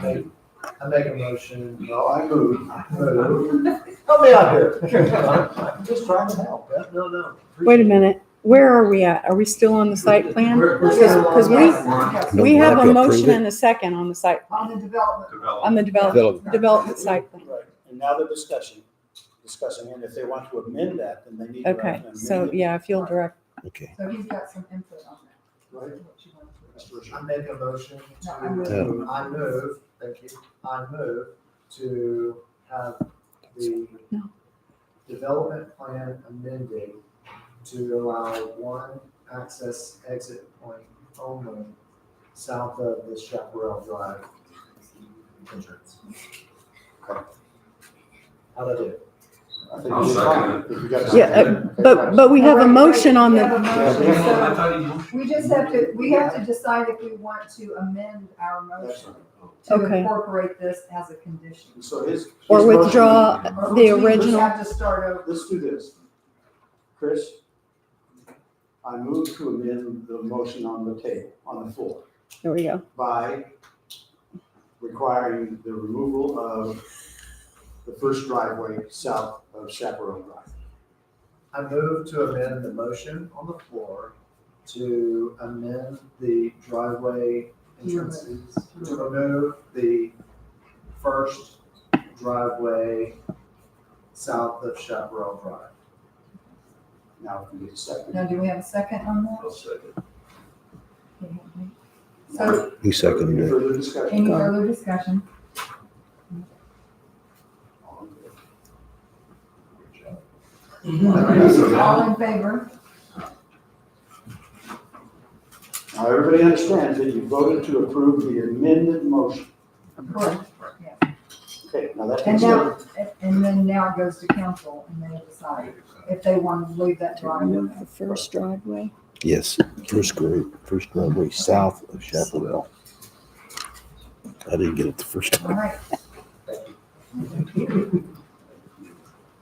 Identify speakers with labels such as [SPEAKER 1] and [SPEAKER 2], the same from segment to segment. [SPEAKER 1] make, I make a motion, no, I move, move. Help me out here. I'm just trying to help, yeah, no, no.
[SPEAKER 2] Wait a minute, where are we at? Are we still on the site plan?
[SPEAKER 1] We're- we're
[SPEAKER 2] Because-
[SPEAKER 1] still on
[SPEAKER 2] 'cause we-
[SPEAKER 1] that one.
[SPEAKER 2] We have
[SPEAKER 3] have
[SPEAKER 2] a
[SPEAKER 3] to approve
[SPEAKER 2] motion
[SPEAKER 3] it.
[SPEAKER 2] and a second on the site,
[SPEAKER 1] On the development.
[SPEAKER 2] on the develop,
[SPEAKER 3] Development.
[SPEAKER 2] development site plan.
[SPEAKER 4] Right, and now they're discussing, discussing, and if they want to amend that, then they need to.
[SPEAKER 2] Okay, so yeah, if you'll direct,
[SPEAKER 3] Okay.
[SPEAKER 5] So he's got some input on
[SPEAKER 1] Right.
[SPEAKER 5] that. what you want to do.
[SPEAKER 1] I make a motion
[SPEAKER 5] No, I move.
[SPEAKER 1] to, I move, thank you, I move to have the
[SPEAKER 2] No.
[SPEAKER 1] development plan amended to allow one access exit point only south of the Chaparral Drive entrance. How'd I do?
[SPEAKER 6] I'll second
[SPEAKER 4] it.
[SPEAKER 2] Yeah, uh, but, but we have a motion on
[SPEAKER 5] We have a
[SPEAKER 2] the,
[SPEAKER 5] motion,
[SPEAKER 6] I
[SPEAKER 5] so
[SPEAKER 6] thought you.
[SPEAKER 5] We just have to, we have to decide if we want to amend our motion to
[SPEAKER 2] Okay.
[SPEAKER 5] incorporate this as a condition.
[SPEAKER 4] So his.
[SPEAKER 2] or
[SPEAKER 4] his
[SPEAKER 2] withdraw
[SPEAKER 5] Or
[SPEAKER 2] the
[SPEAKER 5] we would
[SPEAKER 2] original.
[SPEAKER 5] Have to start over.
[SPEAKER 4] motion- Let's do this. Chris, I move to amend the motion on the table, on the floor,
[SPEAKER 2] There we go.
[SPEAKER 4] by requiring the removal of the first driveway south of Chaparral Drive.
[SPEAKER 1] I move to amend the motion on the floor to amend the driveway entrances, to remove the first driveway south of Chaparral Drive.
[SPEAKER 4] Now, if we get a second.
[SPEAKER 5] Now, do we have a second on that? So
[SPEAKER 3] He seconded
[SPEAKER 4] Any
[SPEAKER 3] it.
[SPEAKER 4] Further discussion?
[SPEAKER 5] any further discussion?
[SPEAKER 4] All in favor?
[SPEAKER 5] All in favor?
[SPEAKER 4] Now, everybody understands that you voted to approve the amended motion.
[SPEAKER 5] Correct.
[SPEAKER 4] Okay, now that
[SPEAKER 5] And
[SPEAKER 4] takes
[SPEAKER 5] now,
[SPEAKER 4] care
[SPEAKER 5] and then now it goes to council and they decide if they want to leave that driveway.
[SPEAKER 2] The first driveway.
[SPEAKER 3] Yes, first grade, first driveway south of Chapel I didn't get it the first
[SPEAKER 5] All
[SPEAKER 3] time.
[SPEAKER 5] right.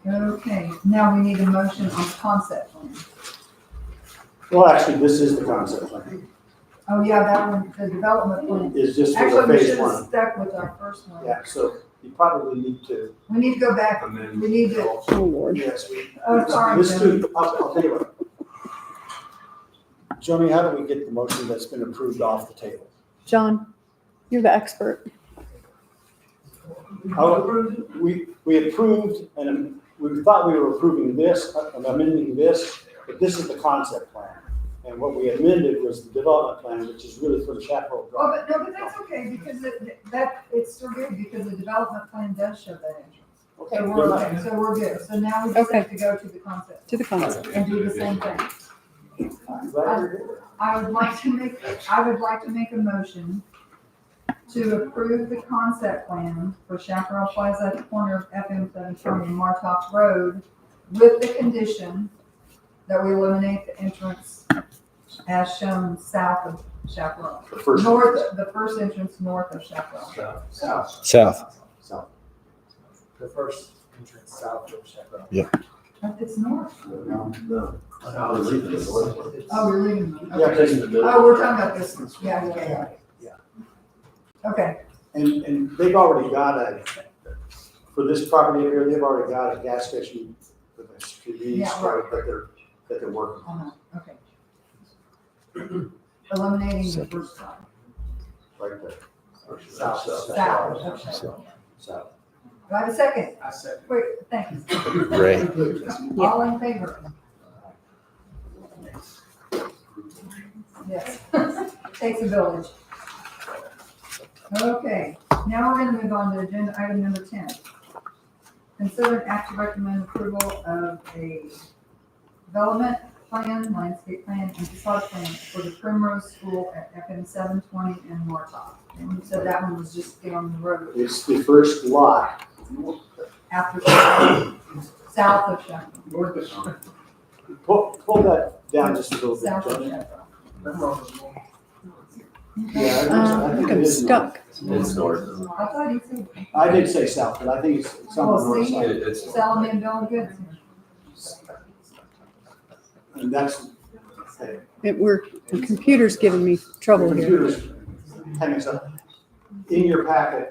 [SPEAKER 5] Okay, now we need a motion on concept plan.
[SPEAKER 4] well, actually, this is the concept plan,
[SPEAKER 5] Oh, yeah, that one, the development plan.
[SPEAKER 4] is just for the
[SPEAKER 5] Actually, we
[SPEAKER 4] phase
[SPEAKER 5] should have
[SPEAKER 4] one.
[SPEAKER 5] stuck with our first one.
[SPEAKER 4] Yeah, so you probably need to,
[SPEAKER 5] We need to go back,
[SPEAKER 6] And then.
[SPEAKER 5] we need to,
[SPEAKER 2] Oh, Lord.
[SPEAKER 4] yes, we.
[SPEAKER 5] Oh, sorry,
[SPEAKER 4] This too, I'll, I'll tell you what. Joni, how do we get the motion that's been approved off the table?
[SPEAKER 2] John, you're the expert.
[SPEAKER 4] How, we, we approved and we thought we were approving this, uh, amending this, but this is the concept plan. And what we amended was the development plan, which is really for the Chaparral
[SPEAKER 5] oh,
[SPEAKER 4] Drive.
[SPEAKER 5] but, no, but that's okay, because it, that, it's still good, because the development plan does show that entrance.
[SPEAKER 4] Okay,
[SPEAKER 5] So
[SPEAKER 4] never mind.
[SPEAKER 5] we're, so we're good, so now we just have to go to the concept
[SPEAKER 2] To the concept.
[SPEAKER 5] and do the same thing.
[SPEAKER 4] I'm glad you're here.
[SPEAKER 5] I would like to make, I would like to make a motion to approve the concept plan for Chaparral Plaza at the corner of FM seventeen and Martop Road with the condition that we eliminate the entrance as shown south of Chaparral.
[SPEAKER 4] The first.
[SPEAKER 5] North, the first entrance north of Chaparral.
[SPEAKER 4] South,
[SPEAKER 3] South,
[SPEAKER 4] south.
[SPEAKER 1] The first entrance south of Chaparral.
[SPEAKER 5] Oh, It's north.
[SPEAKER 4] No.
[SPEAKER 5] Oh, we're leaving. them.
[SPEAKER 4] Yeah,
[SPEAKER 5] Okay.
[SPEAKER 4] it's in the middle.
[SPEAKER 5] Oh, we're talking about this. one. Yeah, yeah, yeah. Okay,
[SPEAKER 4] And, and they've already got a, for this property here, they've already got a gas station with a convenience
[SPEAKER 5] Yeah, right.
[SPEAKER 4] store that they're, that they're working on.
[SPEAKER 5] uh-huh, okay. Eliminating the first side.
[SPEAKER 4] right there.
[SPEAKER 1] South.
[SPEAKER 5] South of Chaparral.
[SPEAKER 4] South.
[SPEAKER 5] Do I have a second?
[SPEAKER 1] I said.
[SPEAKER 5] Wait, thanks.
[SPEAKER 3] Ray.
[SPEAKER 5] All in favor? Yes. Takes a village. Okay, now we're gonna move on to agenda item number ten. Consider an act to recommend approval of a development plan, landscape plan, and facade plan for the Primrose School at FM seven twenty and Martop. And you said that one was just down the road
[SPEAKER 4] It's the first lot.
[SPEAKER 5] after, south of Chevron.
[SPEAKER 4] Pull, pull that down just a little bit.
[SPEAKER 5] South of
[SPEAKER 4] Johnny.
[SPEAKER 5] Chevron.
[SPEAKER 4] Yeah, I think-
[SPEAKER 2] Um,
[SPEAKER 4] I
[SPEAKER 2] I
[SPEAKER 4] think
[SPEAKER 2] think
[SPEAKER 4] it
[SPEAKER 2] I'm
[SPEAKER 4] is north.
[SPEAKER 2] stuck.
[SPEAKER 6] It's north.
[SPEAKER 5] I thought he said
[SPEAKER 4] I did say south, but I think it's it's on the
[SPEAKER 5] Well,
[SPEAKER 4] north
[SPEAKER 5] see,
[SPEAKER 4] side.
[SPEAKER 6] It's.
[SPEAKER 5] Solomon Bill Goods.
[SPEAKER 4] And that's, hey,
[SPEAKER 2] It, we're, the computer's giving me trouble here.
[SPEAKER 4] computers, hang on a second. In your packet,